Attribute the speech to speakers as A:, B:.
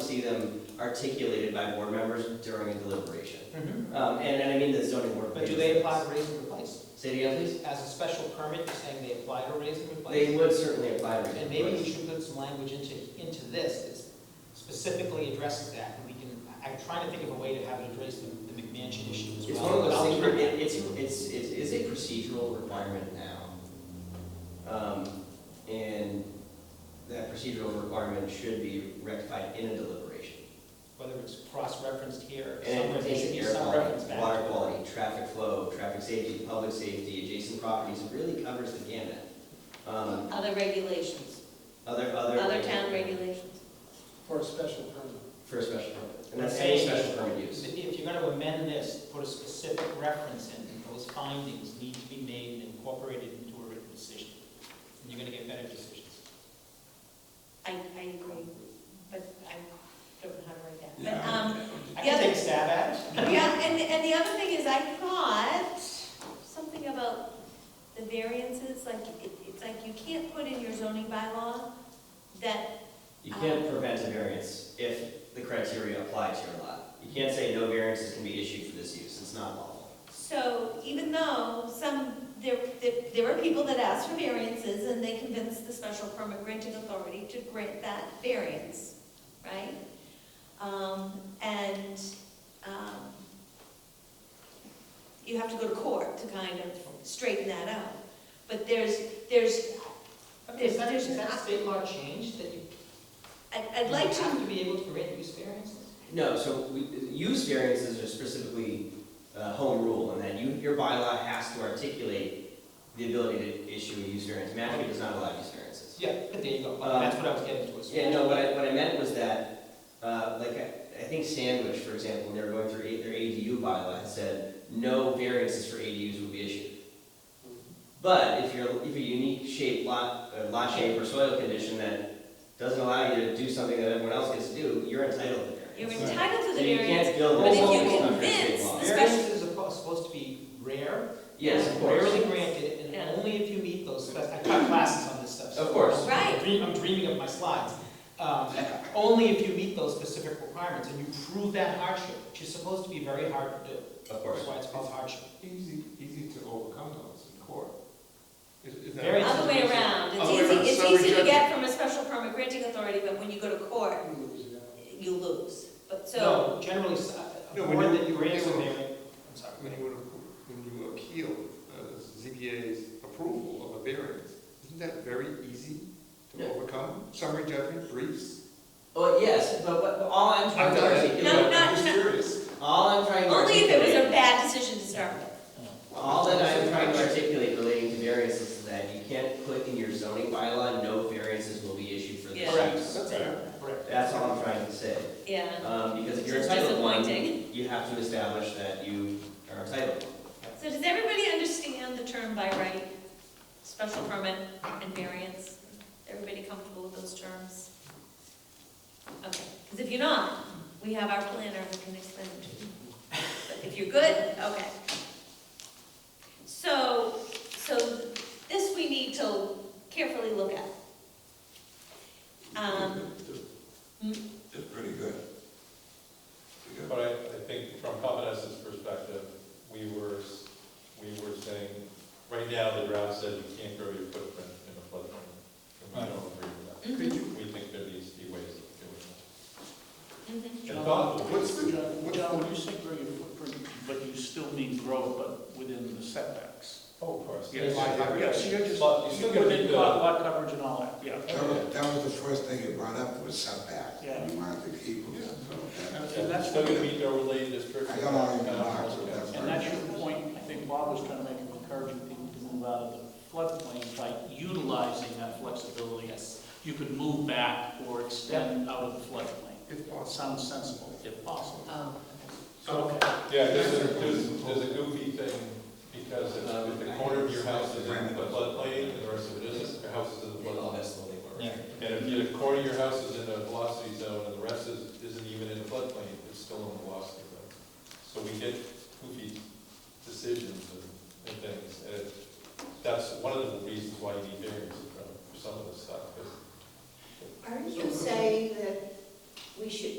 A: see them articulated by board members during a deliberation.
B: Mhm.
A: Um, and, and I mean the zoning board.
B: But do they apply to raise and replace?
A: Say it again, please?
B: As a special permit, you're saying they apply to raise and replace?
A: They would certainly apply. to-
B: And maybe we should put some language into, into this that specifically addresses that, and we can, I- I'm trying to think of a way to have it address the the McMansion issue as well.
A: It's one of those
B: I'll
A: things,
B: leave
A: where
B: it at
A: it, it's, it's, it is a procedural requirement now. Um, and that procedural requirement should be rectified in a deliberation.
B: that. Whether it's cross-referenced here, or
A: And it
B: somewhere, there
A: pertains
B: should
A: to
B: be
A: air
B: some reference
A: quality,
B: back.
A: water
B: to it.
A: quality, traffic flow, traffic safety, public safety, adjacent properties, it really covers the gamut. Um,
C: Other regulations,
A: other, other.
C: other town regulations.
D: For a special permit.
A: For a special permit, and that's any special permit use.
B: If if you're gonna amend this, put a specific reference in, and those findings need to be made and incorporated into a written decision. And you're gonna get better decisions.
C: I, I agree, but I don't know how to write that. But,
E: Yeah,
C: um,
B: I
C: Yeah.
B: can take a stab at it.
C: yeah, and, and the other thing is, I thought something about the variances, like, it, it's like you can't put in your zoning bylaw that,
A: You can't prevent a variance if the criteria apply to your lot. You can't say no variances can be issued for this use, it's not lawful.
C: so even though some, there, there, there are people that ask for variances and they convince the special permit granting authority to grant that variance, right? Um, and, um, you have to go to court to kind of straighten that out. But there's, there's,
B: Okay, Is that,
C: There's-
B: is that state law changed, that you
C: I'd, I'd like
B: You have
C: to,
B: to be able to grant use variances?
A: No, so we, use variances are specifically, uh, home rule, and then you, your bylaw has to articulate the ability to issue a use variance. Mashpee does not allow use variances.
B: Yeah, but there you go,
A: Um,
B: that's what I was getting to. is-
A: Yeah, no, what I, what I meant was that, uh, like, I, I think Sandwich, for example, when they were going through A- their ADU bylaw, had said, no variances for ADUs will be issued. But if you're, if a unique shape lot, uh, lot shape or soil condition that doesn't allow you to do something that everyone else gets to do, you're entitled to variance.
C: you're entitled to
A: So
C: the
A: you
C: variance.
A: can't build.
B: but if
A: multiple
B: you
A: structures in
C: convince
A: law.
C: the special-
B: Variances are po- supposed to be rare.
A: Yes, of course.
B: Rarely granted, and
C: Yeah.
B: only if you meet those, spec- I taught classes on this stuff. so
A: Of course.
B: I'm
C: Right.
B: dream- I'm dreaming of my slides. Um, Only if you meet those specific requirements, and you prove that hardship, which is supposed to be very hard to do.
A: Of
B: That's
A: course.
B: why it's called hardship.
E: Easy, easy to overcome those in court. Is- is that-
B: Very-
C: Other way around, it's
E: Other way around,
C: easy, it's
E: summary
C: easy to
E: judgment.
C: get from a special permit granting authority, but when you go to court, you lose. But so,
B: No, generally, s- uh, a
E: No,
B: board
E: when you-
B: that you
E: when
B: grant a
E: you-
B: variance, I'm sorry.
E: When you, when you appeal uh, ZBA's approval of a variance, isn't that very easy
A: Yeah.
E: to overcome? Summary judgment, briefs?
A: Well, yes, but what, all I'm trying
E: I'm
A: to
E: not-
A: articulate.
C: No, no.
E: I'm just curious.
A: All I'm trying to
C: only if
A: articulate.
C: it was a bad decision to start with.
A: All that I'm trying to articulate relating to variances is that you can't put in your zoning bylaw, no variances will be issued for this
C: Yeah.
A: use.
E: That's fair.
B: Correct.
A: That's all I'm trying to say,
C: Yeah,
A: um, because if you're
C: It's
A: entitled to one,
C: disappointing.
A: you have to establish that you are entitled.
C: so does everybody understand the term by right, special permit and variance? Everybody comfortable with those terms? Okay, because if you're not, we have our planner who can explain it to you. But if you're good, okay. So, so this we need to carefully look at. Um,
F: It's pretty good. Pretty good.
G: But I, I think from Covenant's perspective, we were, s- we were saying, right now, the draft says you can't grow your footprint in a floodplain. And we don't agree with
C: mhm,
G: that. We think there needs to be ways
C: mhm.
G: of doing it. And thoughtful ways.
E: What's the, what's
D: John,
E: the,
D: when you say grow your footprint, but you still mean grow, but within the setbacks.
G: Oh, of course.
D: Yes,
G: Yeah.
D: yeah, so you're just,
G: But you still gotta
D: within
G: meet the-
D: lot, lot coverage and all that, yeah.
F: That was, that was the first thing you brought up was setback.
D: Yeah.
F: You wanted to keep them, so that-
D: And
G: Yeah,
D: and that's,
G: Still gonna meet the overlay district.
F: I don't know any
G: Yeah.
F: marks of that.
D: and that's your point, I think Bob was trying to make, of encouraging people to move out of the floodplain by utilizing that flexibility.
B: Yes.
D: You could move back or extend out of the floodplain.
E: if
D: Well, it
E: possible?
D: sounds sensible, if possible.
B: Um,
G: So, yeah, there's a, there's, there's a goofy thing, because if if the corner of your house is in the floodplain, and the rest of it isn't, your house is in the floodplain.
B: yeah.
G: And if the corner of your house is in a velocity zone and the rest is, isn't even in the floodplain, it's still in the velocity zone. So we get goofy decisions and, and things, and it- that's one of the reasons why you need variance for some of this stuff, 'cause
H: Aren't you saying that we should